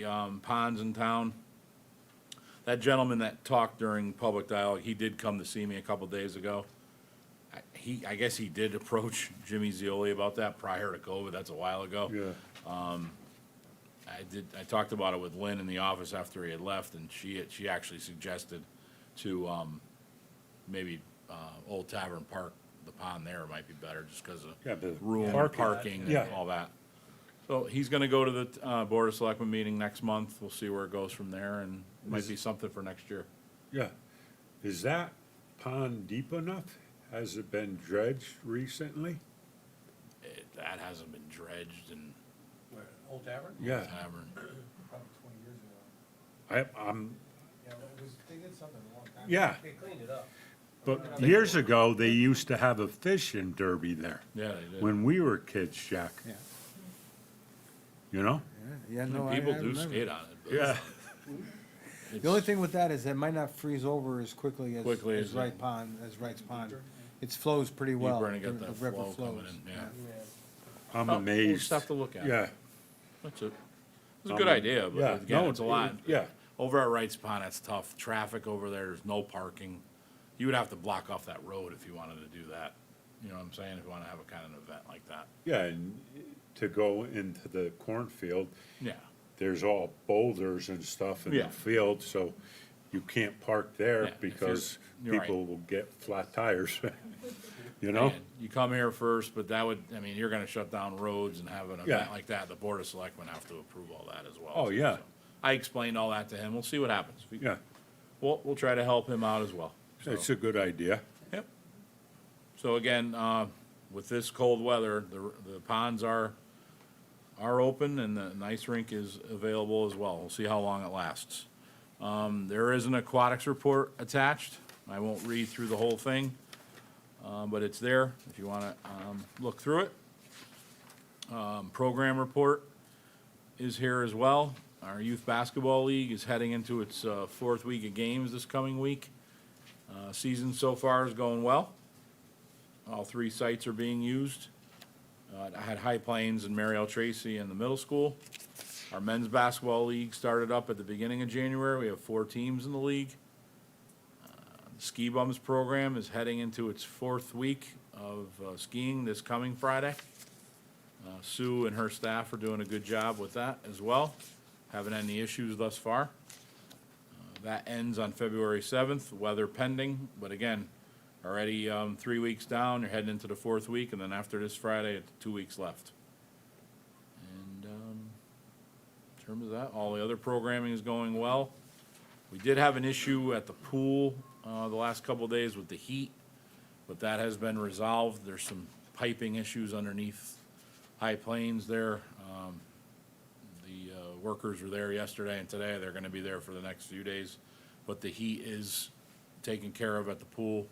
the, um, ponds in town. That gentleman that talked during public dialogue, he did come to see me a couple days ago. I- He, I guess he did approach Jimmy Zioli about that prior to COVID, that's a while ago. Yeah, I did, I talked about it with Lynn in the office after he had left, and she, she actually suggested to, um, maybe, uh, Old Tavern Park, the pond there might be better, just because Yeah, the of room, parking. parking, and Yeah. all that. So he's gonna go to the, uh, Board of Selectmen meeting next month, we'll see where it goes from there, and might be something for next year. yeah. Is that pond deep enough? Has it been dredged recently? It- That hasn't been dredged in Where, Old Tavern? Yeah, Tavern. Probably twenty years ago. I, I'm, Yeah, it was, they did something a long time. ago. Yeah. They cleaned it up. but years ago, they used to have a fishing derby there Yeah, they did. when we were kids, Jack. Yeah. You know? Yeah, no, I, I People do remember. skate on it. but it's- The only thing with that is it might not freeze over as quickly as, Quickly as as Wright it- Pond, as Wright's Pond. It flows pretty well. and it got the- that the river flow coming flows, in, yeah. I'm Oh, we'll amazed. just have to look at it. Yeah, That's a, it's a good idea, Um, yeah, but again, no, it's a lot. yeah. Over at Wright's Pond, it's tough. Traffic over there, there's no parking. You would have to block off that road if you wanted to do that. You know what I'm saying? If you wanna have a kind of event like that. Yeah, and to go into the cornfield, Yeah, there's all boulders and stuff in the Yeah. field, so you can't park Yeah, there if you- because you're right. people will get flat tires, you know? and you come here first, but that would, I mean, you're gonna shut down roads and have an event Yeah. like that. The Board of Selectmen have to approve all that as well. Oh, yeah. So, I explained all that to him. We'll see what happens. We- Yeah, We'll, we'll try to help him out as well. So- it's a good idea. Yep. So again, uh, with this cold weather, the, the ponds are, are open and the ice rink is available as well. We'll see how long it lasts. Um, there is an aquatics report attached. I won't read through the whole thing, um, but it's there if you wanna, um, look through it. Um, program report is here as well. Our youth basketball league is heading into its, uh, fourth week of games this coming week. Uh, Season so far is going well. All three sites are being used. Uh, I had High Plains and Mary L. Tracy in the middle school. Our men's basketball league started up at the beginning of January. We have four teams in the league. Uh, the Ski Bums program is heading into its fourth week of uh, skiing this coming Friday. Uh, Sue and her staff are doing a good job with that as well. Haven't had any issues thus far. That ends on February seventh, weather pending, but again, already, um, three weeks down, you're heading into the fourth week, and then after this Friday, it's two weeks left. And, um, in terms of that, all the other programming is going well. We did have an issue at the pool, uh, the last couple of days with the heat, but that has been resolved. There's some piping issues underneath High Plains there. Um, the uh, workers were there yesterday and today. They're gonna be there for the next few days. But the heat is taken care of at the pool,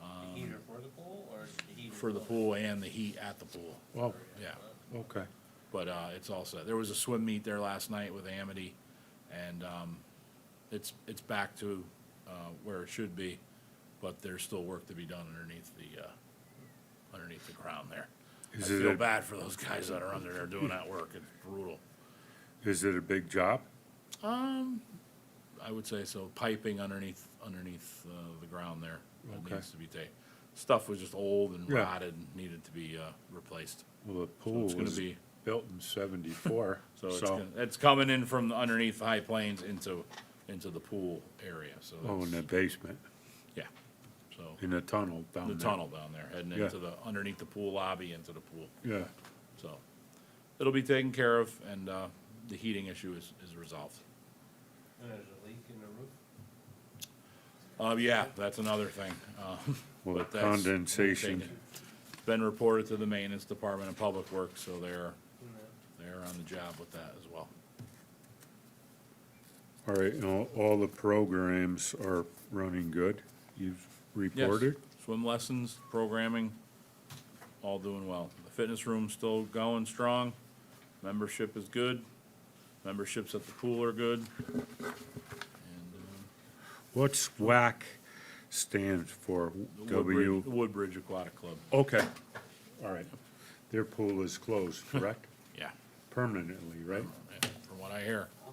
The heater for the pool or the heater? Um, for the pool and the heat at the pool. Well, Yeah, okay. but, uh, it's all set. There was a swim meet there last night with Amity and, um, it's, it's back to, uh, where it should be, but there's still work to be done underneath the, uh, underneath the ground there. I Is it feel a- bad for those guys that are under there doing that work. It's brutal. Is it a big job? Um, I would say so, piping underneath, underneath, uh, the ground there, that Okay. needs to be taken. Stuff was just old and Yeah. rotted, and needed to be, uh, replaced, Well, the pool gonna was be- built in seventy-four, so it's, so, gonna- it's coming in from underneath the High Plains into, into the pool area, so oh, in the that's, basement, yeah. So, in the tunnel down the there. tunnel down there, heading Yeah. into the, underneath the pool lobby, into the pool, Yeah, so. It'll be taken care of, and, uh, the heating issue is, is resolved. And there's a leak in the roof? Uh, yeah, that's another thing. um, Well, but the that's- condensation. Been reported to the maintenance department and public works, so they're, they're on the job with that as well. all right, and all, all the programs are running good, you've Yes, reported? Swim lessons, programming, all doing well. The fitness room's still going strong. Membership is good. Memberships at the pool are good. And, uh, What's WAC stand for? the Woodbridge- W, Woodbridge Aquatic Club, okay, all right. Their pool is closed, correct? yeah, Permanently, right? yeah, from what I hear.